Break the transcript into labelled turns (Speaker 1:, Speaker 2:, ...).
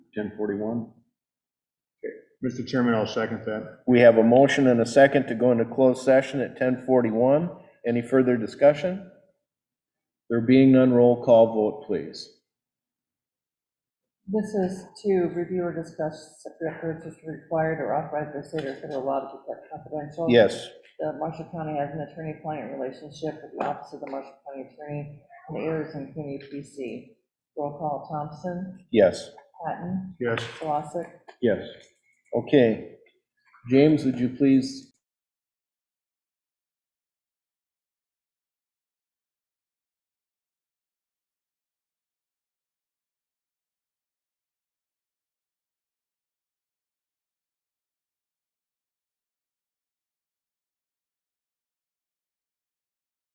Speaker 1: 1041?
Speaker 2: Mr. Chairman, I'll second that.
Speaker 1: We have a motion and a second to go into closed session at 10:41. Any further discussion? There being none, roll call vote, please.
Speaker 3: This is to review or discuss separate purchase required or authorized by state or federal law to protect confidential.
Speaker 1: Yes.
Speaker 3: The Marshall County has an attorney-client relationship with the Office of the Marshall County Attorney and the Arizona Community PC. Roll call Thompson,
Speaker 1: Yes.
Speaker 3: Patton,
Speaker 2: Yes.
Speaker 3: Glossick,
Speaker 1: Yes. Okay. James, would you please